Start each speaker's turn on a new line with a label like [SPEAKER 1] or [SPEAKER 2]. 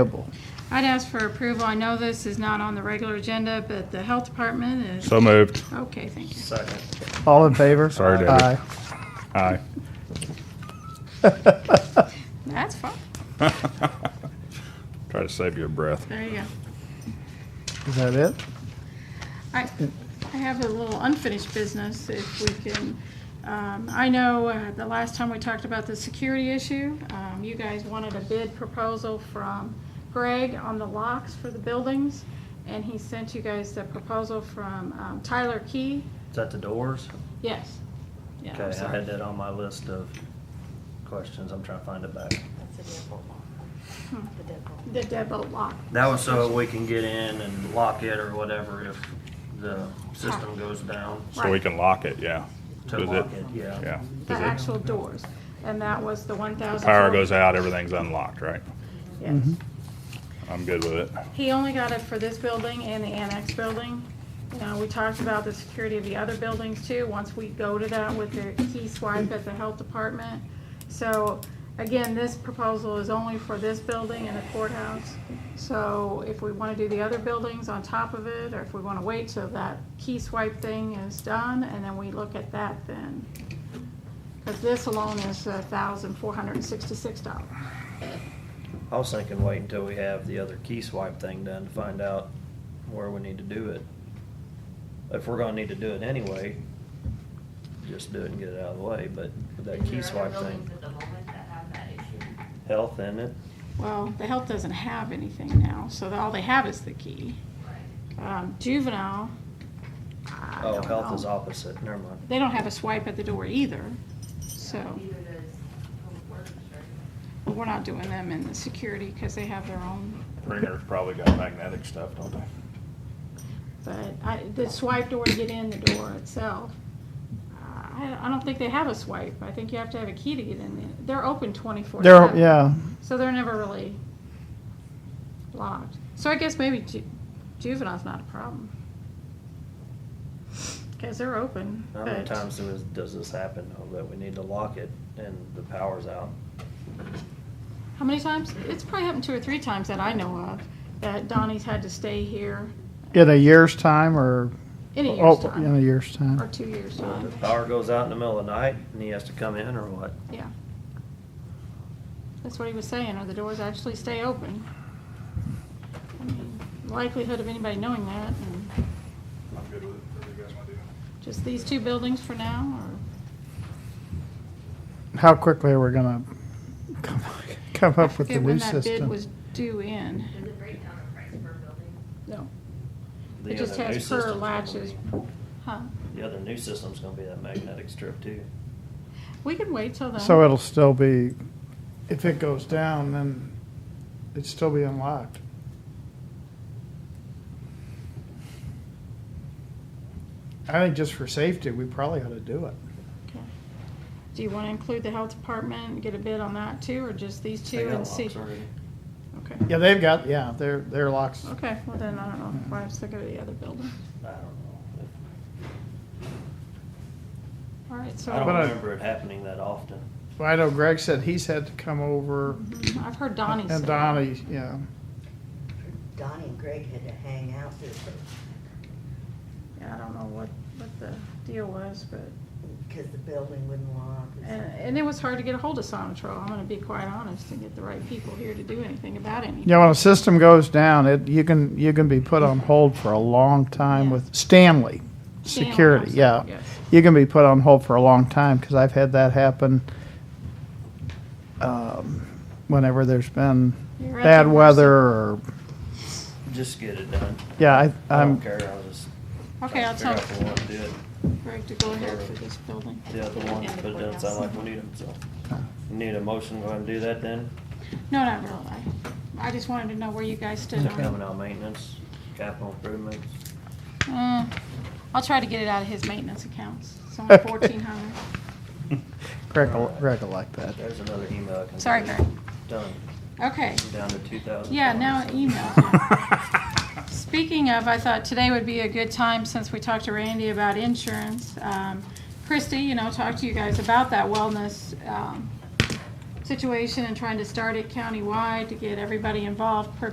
[SPEAKER 1] Noble.
[SPEAKER 2] I'd ask for approval. I know this is not on the regular agenda, but the health department is,
[SPEAKER 3] So moved.
[SPEAKER 2] okay, thank you.
[SPEAKER 4] Second.
[SPEAKER 1] All in favor?
[SPEAKER 3] Sorry, David.
[SPEAKER 1] Aye.
[SPEAKER 3] Aye.
[SPEAKER 2] That's fine.
[SPEAKER 3] Try to save your breath.
[SPEAKER 2] There you go.
[SPEAKER 1] Is that it?
[SPEAKER 2] I, I have a little unfinished business if we can. Um, I know uh, the last time we talked about the security issue, um, you guys wanted a bid proposal from Greg on the locks for the buildings. And he sent you guys the proposal from um, Tyler Key.
[SPEAKER 4] Is that the doors?
[SPEAKER 2] Yes. Yeah, I'm
[SPEAKER 4] Okay, I
[SPEAKER 2] sorry.
[SPEAKER 4] had that on my list of questions. I'm trying to find it back.
[SPEAKER 5] That's a deadbolt lock. The deadbolt.
[SPEAKER 2] The deadbolt lock.
[SPEAKER 4] That was so we can get in and lock it or whatever if the system goes down.
[SPEAKER 3] So we can lock it, yeah.
[SPEAKER 4] To
[SPEAKER 3] Does
[SPEAKER 4] lock it, yeah.
[SPEAKER 3] Yeah.
[SPEAKER 2] The
[SPEAKER 3] Does it-
[SPEAKER 2] actual doors, and that was the one thousand.
[SPEAKER 3] Power goes out, everything's unlocked, right?
[SPEAKER 2] Yes.
[SPEAKER 3] I'm good with it.
[SPEAKER 2] He only got it for this building and the annex building. Now, we talked about the security of the other buildings too, once we go to that with the key swipe at the health department. So, again, this proposal is only for this building and the courthouse. So if we wanna do the other buildings on top of it, or if we wanna wait till that key swipe thing is done, and then we look at that then. Cause this alone is a thousand four hundred and sixty-six dollars.
[SPEAKER 4] I was thinking wait until we have the other key swipe thing done to find out where we need to do it. If we're gonna need to do it anyway, just do it and get it out of the way, but with that key swipe thing, health in it.
[SPEAKER 2] Well, the health doesn't have anything now, so the- all they have is the key. Um, Juvenile, I
[SPEAKER 4] Oh,
[SPEAKER 2] don't
[SPEAKER 4] health is
[SPEAKER 2] know.
[SPEAKER 4] opposite, never mind.
[SPEAKER 2] They don't have a swipe at the door either, so, but we're not doing them in the security because they have their own.
[SPEAKER 3] Ringer's probably got magnetic stuff, don't they?
[SPEAKER 2] But I, the swipe door to get in the door itself, uh, I, I don't think they have a swipe. I think you have to have a key to get in there. They're open twenty-four
[SPEAKER 1] There, yeah.
[SPEAKER 2] So they're never really locked. So I guess maybe ju- juvenile's not a problem. Because they're open,
[SPEAKER 4] How many
[SPEAKER 2] but
[SPEAKER 4] times does, does this happen, though, that we need to lock it and the power's out?
[SPEAKER 2] how many times? It's probably happened two or three times that I know of, that Donnie's had to stay here
[SPEAKER 1] In a year's time or?
[SPEAKER 2] in a year's
[SPEAKER 1] Oh, In a
[SPEAKER 2] time,
[SPEAKER 1] year's
[SPEAKER 2] or
[SPEAKER 1] time.
[SPEAKER 2] two years'
[SPEAKER 4] So if
[SPEAKER 2] time,
[SPEAKER 4] the power goes out in the middle of the night and he has to come in or what?
[SPEAKER 2] yeah. That's what he was saying, or the doors actually stay open. I mean, Likelihood of anybody knowing that, and
[SPEAKER 3] I'm good with it, whatever you guys want to do.
[SPEAKER 2] just these two buildings for now, or?
[SPEAKER 1] How quickly are we gonna come- come
[SPEAKER 2] I
[SPEAKER 1] up with the
[SPEAKER 2] forget
[SPEAKER 1] new
[SPEAKER 2] When that bid
[SPEAKER 1] system?
[SPEAKER 2] was due in,
[SPEAKER 5] Does it break down the price per building?
[SPEAKER 2] no.
[SPEAKER 4] The
[SPEAKER 2] It just
[SPEAKER 4] other new
[SPEAKER 2] has per
[SPEAKER 4] system's gonna
[SPEAKER 2] latches,
[SPEAKER 4] be-
[SPEAKER 2] huh?
[SPEAKER 4] The other new system's gonna be that magnetic strip too.
[SPEAKER 2] We can wait till then.
[SPEAKER 1] So it'll still be, if it goes down, then it'd still be unlocked. I think just for safety, we probably ought to do it.
[SPEAKER 2] Okay. Do you want to include the health department, and get a bid on that too, or just these
[SPEAKER 4] They
[SPEAKER 2] two
[SPEAKER 4] got
[SPEAKER 2] and see?
[SPEAKER 4] locks already.
[SPEAKER 2] Okay,
[SPEAKER 1] Yeah, they've got, yeah, their, their locks.
[SPEAKER 2] okay, well then, I don't know, why I was thinking of the other building.
[SPEAKER 4] I don't know.
[SPEAKER 2] All right, so,
[SPEAKER 4] I don't
[SPEAKER 1] But I-
[SPEAKER 4] remember it happening that often.
[SPEAKER 1] Well, I know Greg said he's had to come over
[SPEAKER 2] Mhm, I've heard Donnie say.
[SPEAKER 1] and Donnie, yeah.
[SPEAKER 6] Donnie and Greg had to hang out there
[SPEAKER 2] Yeah, I don't know what, what the deal was, but,
[SPEAKER 6] because the building wouldn't lock. or
[SPEAKER 2] and,
[SPEAKER 6] something.
[SPEAKER 2] and it was hard to get a hold of Sonatrol, I'm gonna be quite honest, and get the right people here to do anything about anything.
[SPEAKER 1] Yeah, when a system goes down, it, you can, you can be put on hold for a long time
[SPEAKER 2] Yeah.
[SPEAKER 1] with Stanley
[SPEAKER 2] Stanley
[SPEAKER 1] Security,
[SPEAKER 2] also,
[SPEAKER 1] yeah.
[SPEAKER 2] yes.
[SPEAKER 1] You can be put on hold for a long time, because I've had that happen um, whenever there's been
[SPEAKER 2] You're at
[SPEAKER 1] bad
[SPEAKER 2] their
[SPEAKER 1] weather or,
[SPEAKER 4] Just get it done.
[SPEAKER 1] yeah, I,
[SPEAKER 4] I don't
[SPEAKER 1] I'm,
[SPEAKER 4] care, I'll just.
[SPEAKER 2] Okay, I'll tell
[SPEAKER 4] try to figure out the one, do it.
[SPEAKER 2] Greg to go ahead for this building.
[SPEAKER 4] The other ones, but it doesn't sound like we need them, so. Need a motion, go ahead and do that then.
[SPEAKER 2] No, not really. I just wanted to know where you guys stood on
[SPEAKER 4] Coming
[SPEAKER 2] it.
[SPEAKER 4] out maintenance, capital improvements.
[SPEAKER 2] Uh, I'll try to get it out of his maintenance accounts. It's only fourteen hundred.
[SPEAKER 1] Greg will, Greg will like that.
[SPEAKER 4] There's another email. I can
[SPEAKER 2] Sorry,
[SPEAKER 4] send.
[SPEAKER 2] Greg.
[SPEAKER 4] Done,
[SPEAKER 2] Okay,
[SPEAKER 4] down to two thousand.
[SPEAKER 2] yeah, now emails. Speaking of, I thought today would be a good time, since we talked to Randy about insurance. Um, Christie, you know, talked to you guys about that wellness, um, situation and trying to start it countywide to get everybody involved per